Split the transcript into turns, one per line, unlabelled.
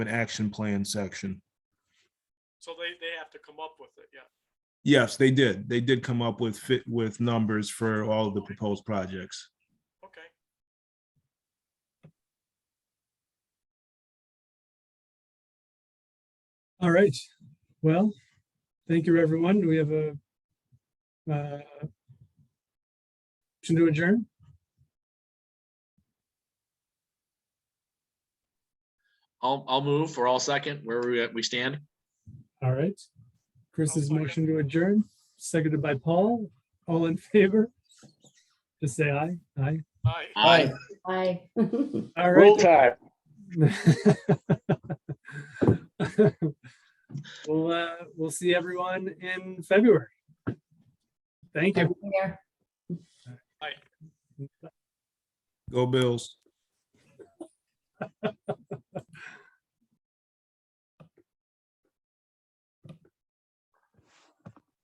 an action plan section.
So they, they have to come up with it, yeah.
Yes, they did. They did come up with fit with numbers for all of the proposed projects.
Okay.
All right, well, thank you, everyone. Do we have a uh, motion to adjourn?
I'll, I'll move for all second where we, we stand.
All right.
I'll
Chris's
second.
motion to adjourn, seconded by Paul. All in favor? Just say aye, aye.
Hi.
Aye.
Aye.
All
Roll
right.
time.
We'll, uh, we'll see everyone in February. Thank you.
Yeah.
Go Bills.